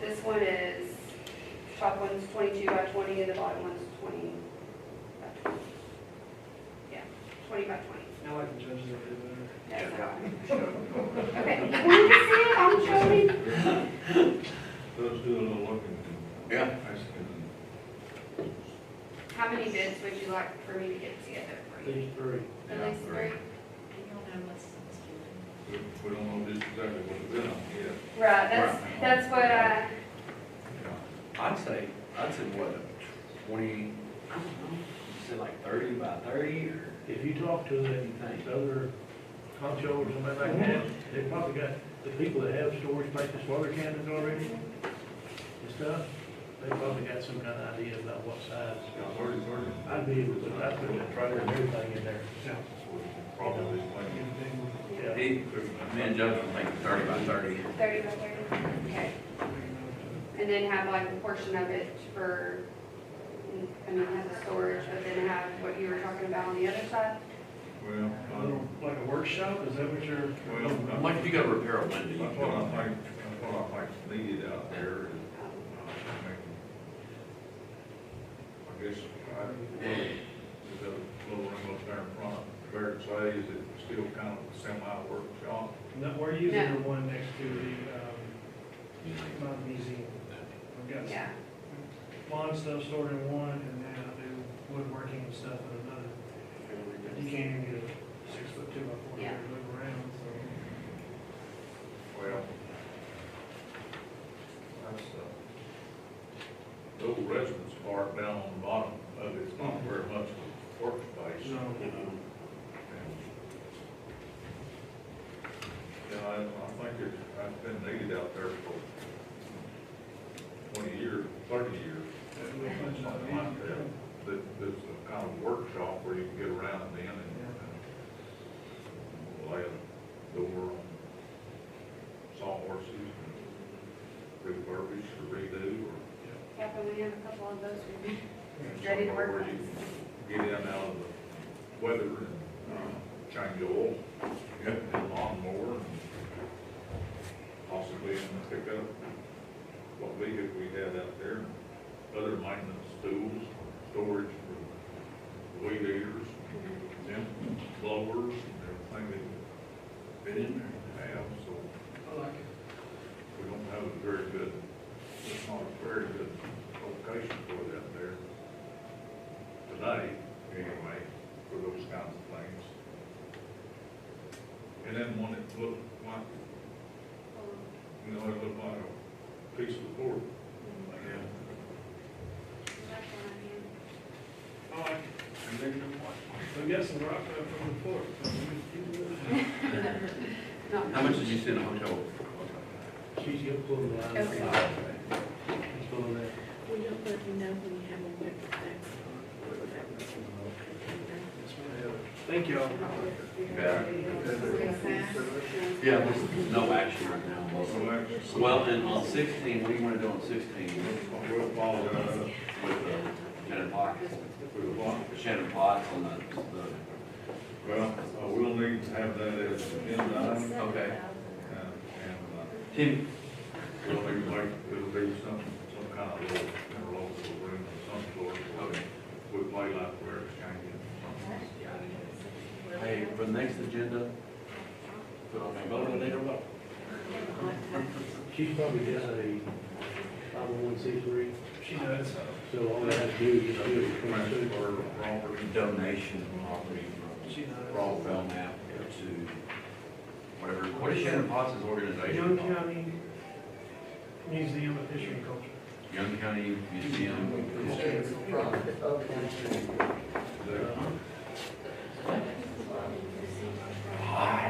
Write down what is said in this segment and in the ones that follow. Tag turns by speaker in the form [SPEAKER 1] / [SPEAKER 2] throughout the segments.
[SPEAKER 1] This one is, top one's twenty-two by twenty and the bottom one's twenty by twenty. Yeah, twenty by twenty.
[SPEAKER 2] Now I can judge it a little better.
[SPEAKER 1] That's all. Okay, you want to see it, I'm showing.
[SPEAKER 3] Let's do a little looking.
[SPEAKER 4] Yeah.
[SPEAKER 3] I see it.
[SPEAKER 1] How many bids would you like for me to get together for you?
[SPEAKER 2] Page three.
[SPEAKER 1] At least three?
[SPEAKER 3] We we don't know just exactly what it's been on yet.
[SPEAKER 1] Right, that's,
[SPEAKER 4] Right.
[SPEAKER 1] that's what uh, I,
[SPEAKER 5] I'd say, I'd say what, twenty, I don't know, you said like thirty by thirty or?
[SPEAKER 2] If you talk to the other concho or somebody like that, they probably got, the people that have storage places, water cannons already and stuff, they probably got some kind of idea about what size.
[SPEAKER 3] Yeah, where, where,
[SPEAKER 2] I'd be able to, I'd put a trailer and everything in there.
[SPEAKER 3] probably like.
[SPEAKER 2] Yeah.
[SPEAKER 4] He, me and Judge would make it thirty by thirty.
[SPEAKER 1] thirty by thirty, okay. And then have like a portion of it for, I mean, have the storage, but then have what you were talking about on the other side?
[SPEAKER 3] Well, I don't,
[SPEAKER 2] Like a workshop, is that what you're?
[SPEAKER 3] well, I-
[SPEAKER 4] Like if you go repair a window, you
[SPEAKER 3] that's what I
[SPEAKER 4] can
[SPEAKER 3] think,
[SPEAKER 4] go on there.
[SPEAKER 3] that's what I think needed out there
[SPEAKER 1] Um,
[SPEAKER 3] is, uh, make- I guess, I, well, there's a little room up there in front of Barrett Clay, is it still kind of a semi workshop?
[SPEAKER 6] No, we're using the one next to the, um, Mountain Museum. I've got
[SPEAKER 1] Yeah,
[SPEAKER 6] lawn stuff stored in one, and then I do woodworking and stuff in another. You can't even get a six foot two by four here
[SPEAKER 1] Yeah.
[SPEAKER 6] to move around, so.
[SPEAKER 3] Well, that's, uh, the old residence part down on the bottom of it's not very much of a workspace.
[SPEAKER 6] No.
[SPEAKER 3] Yeah, I, I think it, I've been needed out there for twenty years, thirty years.
[SPEAKER 6] that we put it on
[SPEAKER 3] Something
[SPEAKER 6] the-
[SPEAKER 3] like that. That, that's a kind of workshop where you can get around then and uh, lay a door on sawhorses and refurbish or redo or.
[SPEAKER 1] yeah, but we have a couple of those we'd be ready to work
[SPEAKER 3] somewhere where you
[SPEAKER 1] on.
[SPEAKER 3] Get in out of the weather and, uh, change the oil, get the lawnmower and possibly even pick up what vehicle we had out there, and other maintenance tools, storage for weed eaters, them blowers, and everything they fit in there and have, so
[SPEAKER 2] I like it.
[SPEAKER 3] we don't have a very good, it's not a very good location for it out there today, anyway, for those kinds of things. And then one that looked like, you know, it looked like a piece of board.
[SPEAKER 1] Mm-hmm.
[SPEAKER 6] I like it. We got some rock up from the fort. so we can keep it.
[SPEAKER 4] How much did you see in a hotel?
[SPEAKER 2] She's gonna pull the line.
[SPEAKER 1] Okay.
[SPEAKER 2] She's pulling that.
[SPEAKER 7] We don't let you know when you have a wet back.
[SPEAKER 2] Thank y'all.
[SPEAKER 4] Yeah, there's no action right now.
[SPEAKER 3] So actually,
[SPEAKER 4] Well, and on sixteen, what do you wanna do on sixteen with,
[SPEAKER 3] we'll follow that up
[SPEAKER 4] uh, Shannon Potts?
[SPEAKER 3] with a block.
[SPEAKER 4] Shannon Potts on the,
[SPEAKER 3] Well, uh, we'll need to have that as an agenda item,
[SPEAKER 4] the, okay.
[SPEAKER 3] uh, and, uh,
[SPEAKER 4] Tim,
[SPEAKER 3] Well, maybe like, it'll be some, some kind of little, interlocal room of some sort,
[SPEAKER 4] Okay.
[SPEAKER 3] we play like we're exchanging. something.
[SPEAKER 4] hey, for the next agenda, put on a vote later, what?
[SPEAKER 2] She's probably just a five oh one C three,
[SPEAKER 6] She does.
[SPEAKER 2] so all I have to do is just do it.
[SPEAKER 3] Friends or property.
[SPEAKER 4] Donation of property
[SPEAKER 6] She
[SPEAKER 4] from
[SPEAKER 6] does.
[SPEAKER 4] Raw Bell Map to whatever, what is Shannon Potts's organization
[SPEAKER 6] Young
[SPEAKER 4] called?
[SPEAKER 6] County Museum of History and Culture.
[SPEAKER 4] Young County Museum.
[SPEAKER 8] No,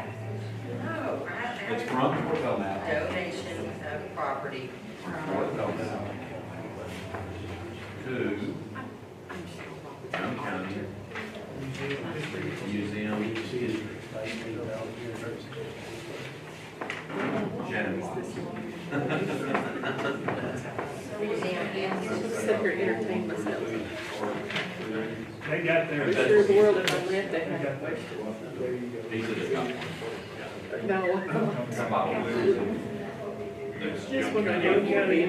[SPEAKER 8] I
[SPEAKER 4] It's
[SPEAKER 8] have
[SPEAKER 4] from Fort Bell
[SPEAKER 8] a
[SPEAKER 4] Map.
[SPEAKER 8] donation of property
[SPEAKER 4] Fort
[SPEAKER 8] from,
[SPEAKER 4] Bell Map to Young County
[SPEAKER 2] Museum of History.
[SPEAKER 4] Museum
[SPEAKER 2] You see it, like, you know, out here, there's-
[SPEAKER 4] Shannon Potts.
[SPEAKER 8] museum and
[SPEAKER 7] Looks like you're entertaining myself.
[SPEAKER 6] They got
[SPEAKER 7] I'm
[SPEAKER 6] their,
[SPEAKER 7] sure the world if I lived
[SPEAKER 6] they
[SPEAKER 7] that.
[SPEAKER 6] got their
[SPEAKER 2] There you go.
[SPEAKER 4] These are the top ones.
[SPEAKER 7] No,
[SPEAKER 4] About-
[SPEAKER 7] just when I go to